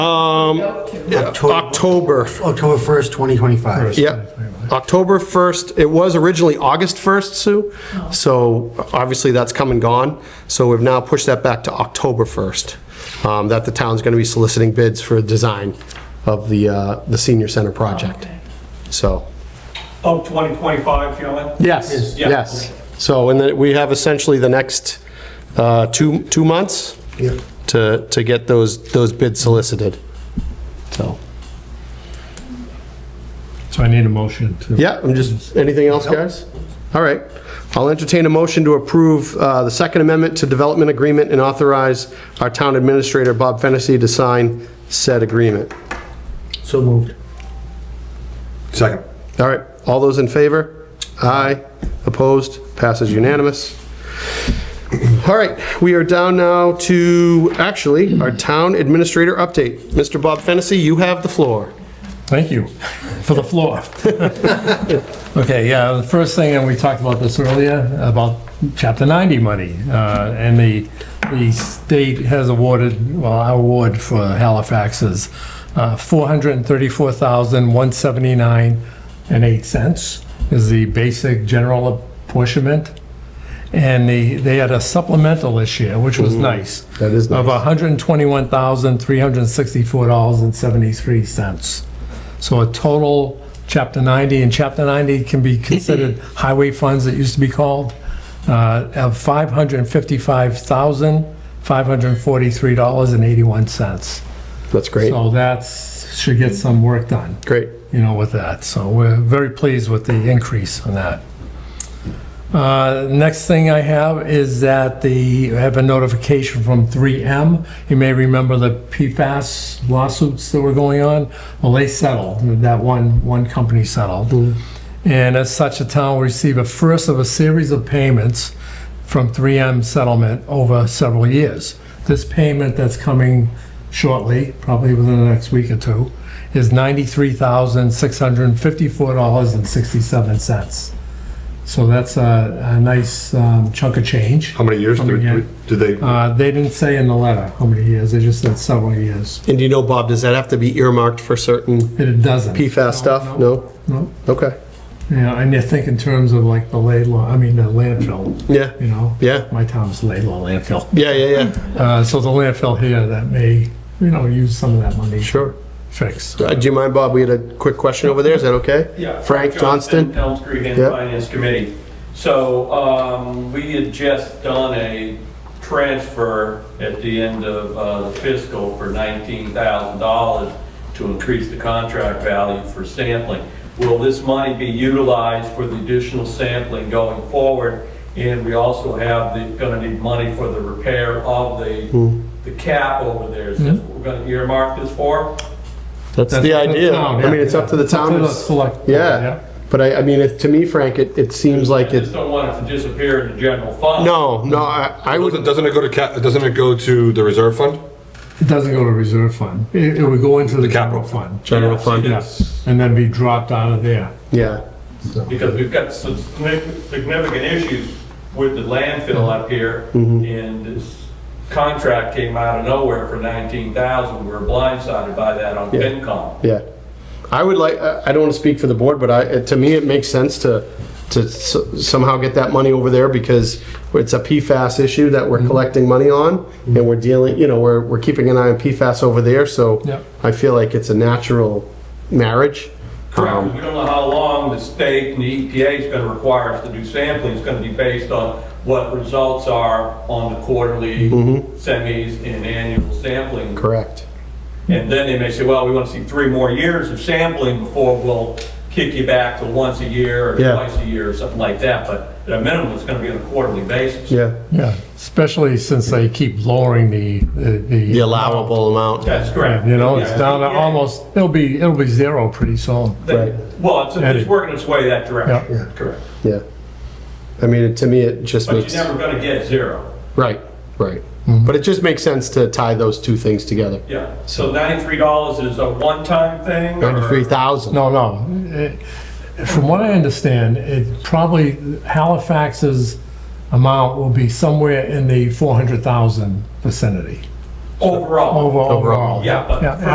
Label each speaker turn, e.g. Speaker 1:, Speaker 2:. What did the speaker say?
Speaker 1: Um, October.
Speaker 2: October 1st, 2025.
Speaker 1: Yeah, October 1st, it was originally August 1st, Sue, so obviously that's come and gone, so we've now pushed that back to October 1st, um, that the town's going to be soliciting bids for design of the, uh, the senior center project. So,
Speaker 3: Oh, 2025, you know what?
Speaker 1: yes,
Speaker 3: Yeah.
Speaker 1: yes. So, and then we have essentially the next uh, two, two months
Speaker 2: Yeah.
Speaker 1: to, to get those, those bids solicited, so.
Speaker 4: So I need a motion to.
Speaker 1: Yeah, I'm just, anything else, guys? All right. I'll entertain a motion to approve uh, the Second Amendment to Development Agreement and authorize our town administrator, Bob Fennessy, to sign said agreement.
Speaker 2: So moved.
Speaker 5: Second.
Speaker 1: All right, all those in favor? Aye. Opposed? Passes unanimous. All right, we are down now to, actually, our town administrator update. Mr. Bob Fennessy, you have the floor.
Speaker 4: Thank you for the floor. Okay, yeah, the first thing, and we talked about this earlier, about Chapter 90 money. uh, And the, the state has awarded, well, our award for Halifax is uh, $434,179.08 is the basic general apportionment. And the, they had a supplemental this year, which was nice.
Speaker 1: That is
Speaker 4: Of
Speaker 1: nice.
Speaker 4: $121,364.73. So a total Chapter 90, and Chapter 90 can be considered highway funds, it used to be called, uh, of $555,543.81.
Speaker 1: That's great.
Speaker 4: So that's, should get some work done
Speaker 1: Great.
Speaker 4: you know, with that. So we're very pleased with the increase on that. Uh, Next thing I have is that the, I have a notification from 3M. You may remember the PFAS lawsuits that were going on. Well, they settled, that one, one company settled. And as such, the town will receive a first of a series of payments from 3M settlement over several years. This payment that's coming shortly, probably within the next week or two, is $93,654.67. So that's a, a nice um, chunk of change.
Speaker 5: How many years
Speaker 4: How
Speaker 5: do
Speaker 4: many years?
Speaker 5: do they,
Speaker 4: Uh, They didn't say in the letter how many years, they just said several years.
Speaker 1: And do you know, Bob, does that have to be earmarked for certain
Speaker 4: And It doesn't.
Speaker 1: PFAS stuff? No?
Speaker 4: No,
Speaker 1: Okay.
Speaker 4: yeah, and you think in terms of like the Laidlaw, I mean, the landfill,
Speaker 1: Yeah.
Speaker 4: you know?
Speaker 1: Yeah.
Speaker 4: My town is Laidlaw landfill.
Speaker 1: Yeah, yeah, yeah.
Speaker 4: Uh, So the landfill here that may, you know, use some of that money. to
Speaker 1: Sure.
Speaker 4: Fix.
Speaker 1: Uh, Do you mind, Bob? We had a quick question over there. Is that okay?
Speaker 3: Yeah,
Speaker 1: Frank Johnston?
Speaker 3: Elm Street and
Speaker 1: Yep.
Speaker 3: Finance Committee. So um, we had just done a transfer at the end of uh, the fiscal for $19,000 to increase the contract value for sampling. Will this money be utilized for the additional sampling going forward? And we also have the, gonna need money for the repair of
Speaker 1: Hmm.
Speaker 3: the, the cap over there. Is this what we're gonna earmark this for?
Speaker 1: That's
Speaker 4: That's
Speaker 1: the
Speaker 4: up to the
Speaker 1: idea.
Speaker 4: town,
Speaker 1: I mean,
Speaker 4: yeah.
Speaker 1: it's up to the
Speaker 4: It's up
Speaker 1: town.
Speaker 4: to the
Speaker 1: s-
Speaker 4: select board, yeah.
Speaker 1: Yeah. But I, I mean, it- to me, Frank, it, it seems
Speaker 3: I
Speaker 1: like
Speaker 3: just
Speaker 1: it,
Speaker 3: don't want it to disappear in the general fund.
Speaker 1: no, no, I, I
Speaker 5: doesn't
Speaker 1: would,
Speaker 5: doesn't it go to, ca- doesn't it go to the reserve fund?
Speaker 4: It doesn't go to reserve fund. It it would go into the capital
Speaker 5: capital.
Speaker 4: fund.
Speaker 1: General fund.
Speaker 4: Yeah, and then be dropped out of there.
Speaker 1: yeah.
Speaker 3: Because we've got some significant significant issues with the landfill up here,
Speaker 1: Mm-hmm.
Speaker 3: and this contract came out of nowhere for 19,000. We were blindsided by that on
Speaker 1: Yeah.
Speaker 3: FinCom.
Speaker 1: Yeah. I would like, I I don't want to speak for the board, but I, it- to me, it makes sense to, to s- somehow get that money over there because it's a PFAS issue that we're collecting money on and we're dealing, you know, we're, we're keeping an eye on PFAS over there, so
Speaker 4: Yep.
Speaker 1: I feel like it's a natural marriage. Um,
Speaker 3: Correct, we don't know how long the state and the EPA is going to require us to do sampling. It's going to be based on what results are on the quarterly, semis, and annual sampling.
Speaker 1: Mm-hmm. Correct.
Speaker 3: And then they may say, well, we want to see three more years of sampling before we'll kick you back to once a year or
Speaker 1: Yeah.
Speaker 3: twice a year or something like that. But at a minimum, it's going to be on a quarterly basis.
Speaker 1: Yeah.
Speaker 4: Yeah, especially since they keep lowering the, the.
Speaker 1: The allowable amount.
Speaker 3: That's correct.
Speaker 4: You know, it's
Speaker 3: Yeah.
Speaker 4: down to
Speaker 3: Yeah.
Speaker 4: almost, it'll be, it'll be zero pretty soon.
Speaker 3: They-
Speaker 1: Right.
Speaker 3: Well, it's,
Speaker 4: Eddie.
Speaker 3: it's working its way that
Speaker 4: Yeah.
Speaker 3: direction. Correct.
Speaker 1: Yeah. I mean, to me, it just
Speaker 3: But
Speaker 1: makes,
Speaker 3: you're never going to get zero.
Speaker 1: right, right. But it just makes sense to tie those two things together.
Speaker 3: Yeah. So $93 is a one-time thing? or-
Speaker 1: 93,000.
Speaker 4: No, no. It- From what I understand, it probably Halifax's amount will be somewhere in the 400,000 vicinity.
Speaker 3: Overall.
Speaker 4: Overall.
Speaker 1: Overall.
Speaker 3: Yeah, but
Speaker 4: Yeah.